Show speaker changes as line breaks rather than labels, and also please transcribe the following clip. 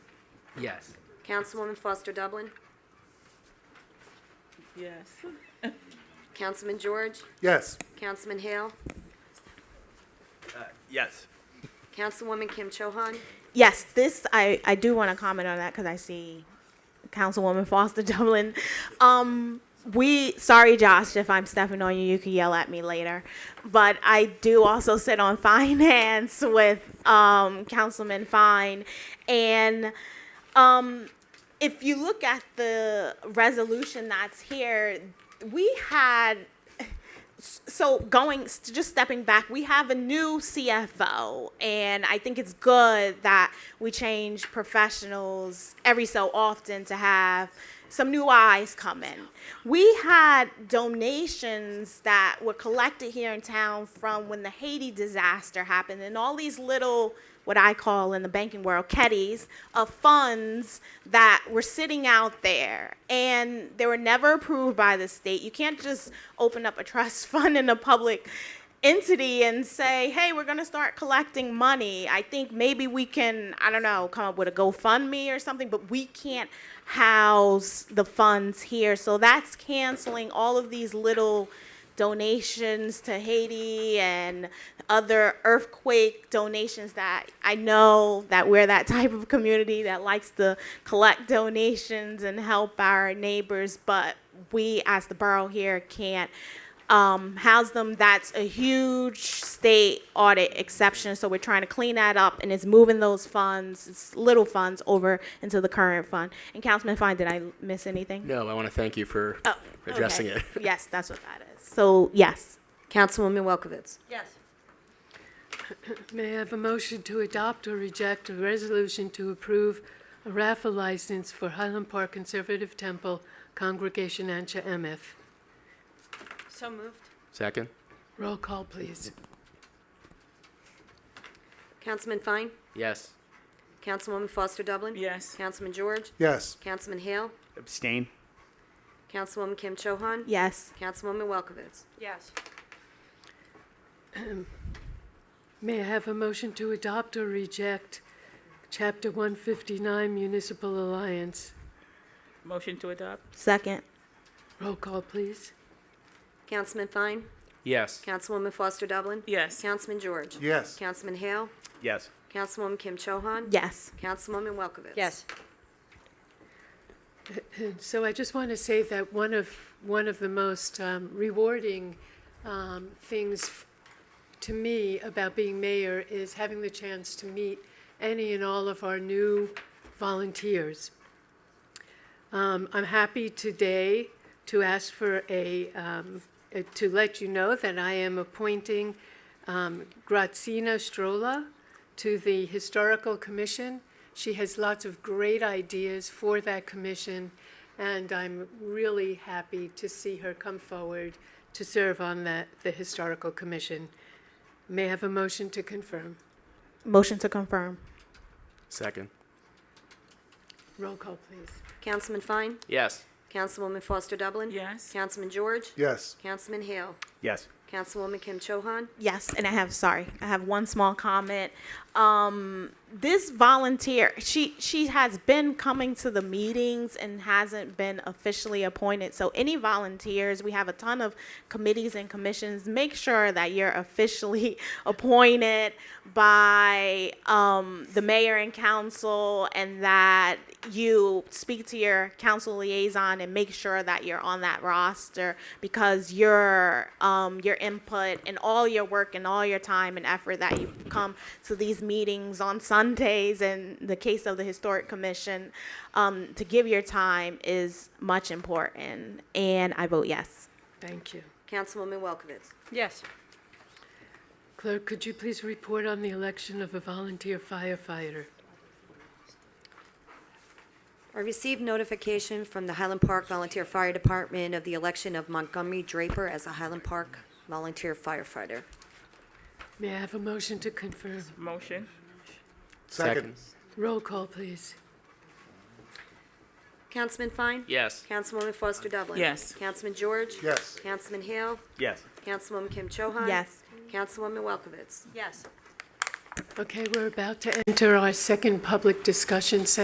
Yes.
Councilwoman Foster Dublin,
Yes.
Councilman George,
Yes.
Councilman Hale,
Uh, Yes.
Councilwoman Kim Chohan,
Yes, this I, I do want to comment on that because I see Councilwoman Foster Dublin. Um, we sorry, Josh, if I'm stepping on you, you can yell at me later. But I do also sit on finance with um, Councilman Fine, and um, if you look at the resolution that's here, we had so going just stepping back we have a new cfo and i think it's good that we change professionals every so often to have some new eyes come in we had donations that were collected here in town from when the haiti disaster happened and all these little what I call in the banking world keddies of funds that were sitting out there and they were never approved by the state. You can't just open up a trust fund in a public entity and say, hey, we're going to start collecting money. I think maybe we can, I don't know, come up with a GoFundMe or something, but we can't house the funds here. So that's canceling all of these little donations to Haiti and other earthquake donations that I know that we're that type of community that likes to collect donations and help our neighbors, but we as the borough here can't um, house them. That's a huge state audit exception, so we're trying to clean that up, and it's moving those funds, it's little funds, over into the current fund. And Councilman Fine, did I miss anything?
No, I want to thank you for
Oh,
addressing
okay.
it.
Yes, that's what that is. So, yes.
Councilwoman Welkowitz,
Yes.
May I have a motion to adopt or reject a resolution to approve a raffle license for Highland Park Conservative Temple Congregation Ancha MF?
So moved.
Second?
Roll call, please.
Councilman Fine,
Yes.
Councilwoman Foster Dublin.
Yes.
Councilman George,
Yes.
Councilman Hale,
Abstain.
Councilwoman Kim Chohan,
Yes.
Councilwoman Welkowitz,
Yes.
May I have a motion to adopt or reject Chapter 159 Municipal Alliance?
Motion to adopt?
Second.
Roll call, please.
Councilman Fine,
Yes.
Councilwoman Foster Dublin.
Yes.
Councilman George.
Yes.
Councilman Hale,
Yes.
Councilwoman Kim Chohan,
Yes.
Councilwoman Welkowitz.
So I just want to say that one of, one of the most um, rewarding um, things f- to me about being mayor is having the chance to meet any and all of our new volunteers. Um, I'm happy today to ask for a, um, uh, to let you know that I am appointing um, Grazina Strola to the Historical Commission. She has lots of great ideas for that commission, and I'm really happy to see her come forward to serve on that, the Historical Commission. May I have a motion to confirm?
Motion to confirm.
Second?
Roll call, please.
Councilman Fine,
Yes.
Councilwoman Foster Dublin.
Yes.
Councilman George,
Yes.
Councilman Hale,
Yes.
Councilwoman Kim Chohan,
Yes, and I have sorry, I have one small comment. Um, this volunteer, she she has been coming to the meetings and hasn't been officially appointed. So any volunteers, we have a ton of committees and commissions. Make sure that you're officially appointed by um, the mayor and council, and that you speak to your council liaison and make sure that you're on that roster because your um, your input and all your work and all your time and effort that you come to these meetings on Sundays and the case of the historic commission um, to give your time is much important and I vote yes.
Thank you.
Councilwoman Welkowitz.
Yes.
Clerk, could you please report on the election of a volunteer firefighter?
I received notification from the Highland Park Volunteer Fire Department of the election of Montgomery Draper as a Highland Park volunteer firefighter.
May I have a motion to confirm?
Motion?
Second.
Roll call, please.
Councilman Fine?
Yes.
Councilwoman Foster Dublin?
Yes.
Councilman George?
Yes.
Councilman Hale?
Yes.
Councilwoman Kim Chohan.
Yes.
Councilwoman Welkowitz?
Yes.
Okay, we're about to enter our second public discussion session.